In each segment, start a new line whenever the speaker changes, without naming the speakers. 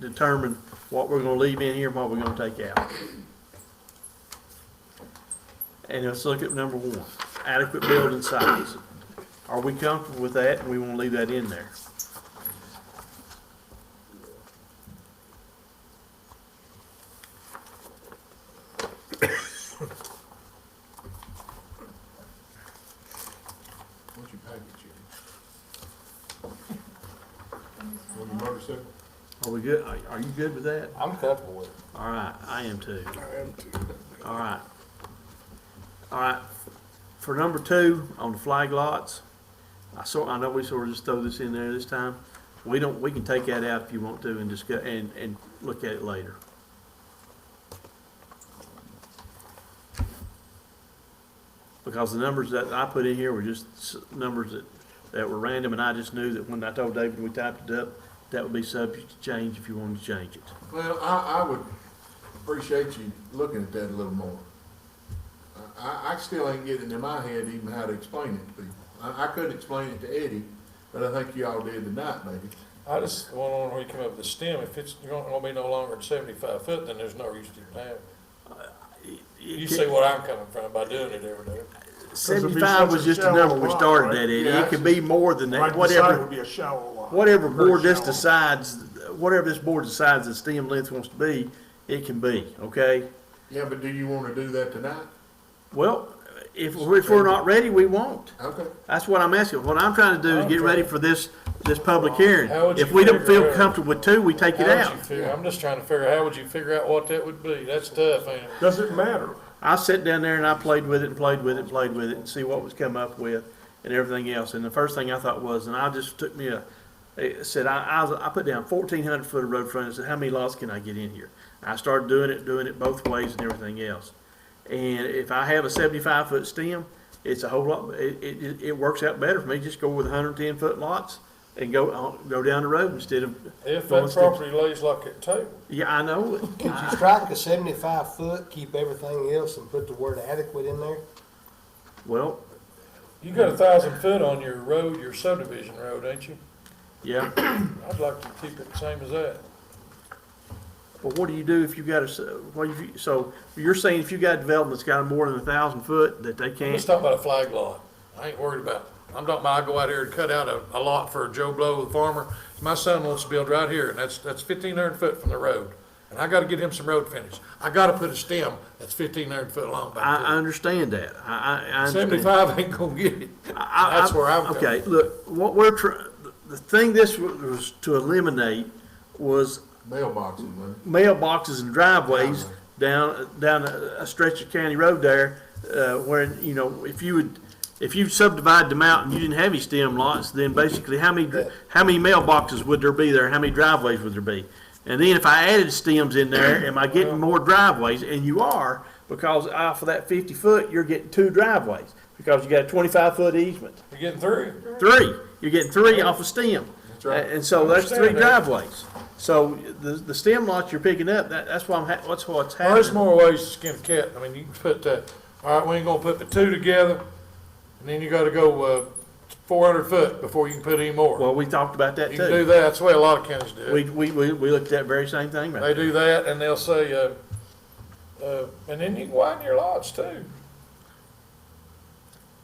determine what we're gonna leave in here and what we're gonna take out. And let's look at number one, adequate building size. Are we comfortable with that? We wanna leave that in there.
What's your package here? On your motorcycle?
Are we good? Are, are you good with that?
I'm comfortable with it.
All right, I am too.
I am too.
All right. All right, for number two, on the flag lots, I sort, I know we sort of just throw this in there this time. We don't, we can take that out if you want to and discuss, and, and look at it later. Because the numbers that I put in here were just s- numbers that, that were random, and I just knew that when I told David we typed it up, that would be subject to change if you wanted to change it.
Well, I, I would appreciate you looking at that a little more. I- I, I still ain't getting in my head even how to explain it to people. I, I couldn't explain it to Eddie, but I think you all did tonight, maybe.
I just want on where you come up with the stem, if it's, you're gonna be no longer than seventy-five foot, then there's no use to even have it. You see what I'm coming from by doing it every day.
it'd be
Seventy-five was
such a
just a number we
shallow
started
lot,
at, Eddie.
Yeah,
It could be more than
Right
that,
beside it
whatever,
would be a shallow lot.
whatever
Very
board this
shallow.
decides, whatever this board decides the stem length wants to be, it can be, okay?
Yeah, but do you wanna do that tonight?
Well, if, we're- if we're not ready, we won't.
Okay.
That's what I'm asking. What I'm trying to do is get ready for this, this public hearing.
How would you
If we don't
figure
feel
out-
comfortable with two, we take it
How would
out.
you figure- I'm just trying to figure, how would you figure out what that would be? That's tough, ain't it?
Does it matter?
I sat down there and I played with it and played with it and played with it and see what was come up with and everything else. And the first thing I thought was, and I just took me a, it said, I, I, was- I put down fourteen hundred foot of road frontage, and said, how many lots can I get in here? I started doing it, doing it both ways and everything else. And if I have a seventy-five foot stem, it's a whole lot, it, it, it works out better for me, just go with hundred and ten foot lots and go, on- go down the road instead of.
If
going
that
steps-
property lays like a table,
Yeah, I know, it.
Could you strike a seventy-five foot, keep everything else and put the word adequate in there?
well,
you got a thousand foot on your road, your subdivision road, ain't you?
yeah.
I'd like to keep it the same as that.
But what do you do if you got a, s- what if you, so you're saying if you got a development that's got more than a thousand foot that they
Let's
can't?
talk about a flag lot. I ain't worried about it. I'm talking about, I go out here and cut out a, a lot for Joe Blow, the farmer. My son wants to build right here, and that's, that's fifteen hundred foot from the road. And I gotta get him some road finish. I gotta put a stem that's fifteen hundred foot long
I, I
back
understand that. I, I, I
there.
understand.
Seventy-five ain't gonna get it.
I- I-
That's where I'm coming.
Okay, look, what we're trying, the thing this wa- was to eliminate was
Mailboxing, man.
mailboxes and driveways down, down a a stretch of county road there, uh, where, you know, if you would, if you subdivide them out and you didn't have any stem lots, then basically how many, dri- how many mailboxes would there be there? How many driveways would there be? And then if I added stems in there, am I getting more driveways? And you are, because off of that fifty foot, you're getting two driveways, because you got a twenty-five foot easement.
You're getting through.
Three, you're getting three off of stem.
right.
And so that's three
Understand that.
driveways. So the, the stem lots you're picking up, that, that's why I'm, ha- that's what's
Well, There's
happening.
more ways to skin a cat. I mean, you can put, uh, all right, we ain't gonna put the two together, and then you gotta go, uh, four hundred foot before you can put any more.
Well, we talked about that
You can do
too.
that. That's the way a lot of counties do it.
We, we, we, we looked at that very same thing right
They
there.
do that, and they'll say, uh, uh, and then you can widen your lots too.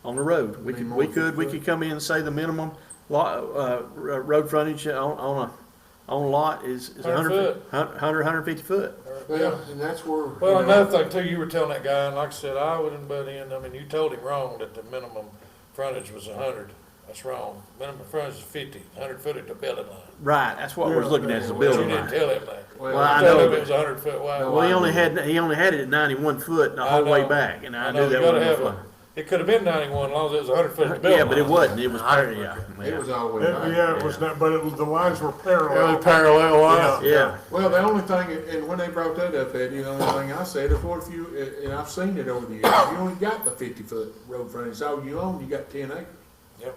on the road. We
Be
could,
more
we could, we
than-
could come in and say the minimum lot, uh, r- road frontage on, on a, on a lot is, is a hundred,
Hundred
hun- hundred, hundred fifty foot.
Well, and that's where. you
Well,
know,
another thing too, you were telling that guy, and like I said, I wouldn't butt in, I mean, you told him wrong that the minimum frontage was a hundred. That's wrong. Minimum frontage is fifty, hundred foot at the building line.
Right, that's what we're looking at, is the
But you
building
didn't
line.
tell him that.
Well,
I
You told
know,
him
but-
It was a hundred foot wide.
Well, he only had, he only had it at ninety-one foot the
I
whole way
know.
back, and I
know,
knew that
you gotta
wasn't
have a-
gonna fly.
It could have been ninety-one, as long as it was a hundred foot at the building
Yeah,
line.
but it wasn't, it was, parity, yeah,
It was
yeah.
It-
always.
Yeah, it was not, but it was, the lines were
Really
parallel.
parallel lines.
Yeah,
Well, the only thing, and when they brought that up, Eddie, the only thing I said is what if you, and I've seen it over the years, you only got the fifty foot road frontage, all you own, you got ten acres.
Yep.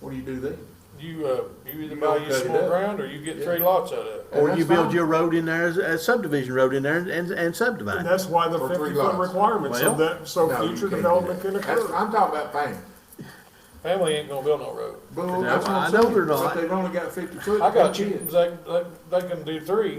What do you do then?
You, uh, you either
You
buy
don't
you
cut it
small
up.
ground, or you get three lots out of it.
And
or
that's
you build
fine.
your road in there, as a subdivision road in there and, and
And
subdivide.
that's why the
For three
fifty foot
lots.
requirement, so
Well,
that, so
No, you
future
can't do
development
that.
can
That's-
occur.
I'm talking about family.
Family ain't gonna build no road.
Well,
No,
that's what
I
I'm
know
saying,
they're
but
not.
they've only got fifty foot.
I got
they
you,
can't.
they, they, they can do three,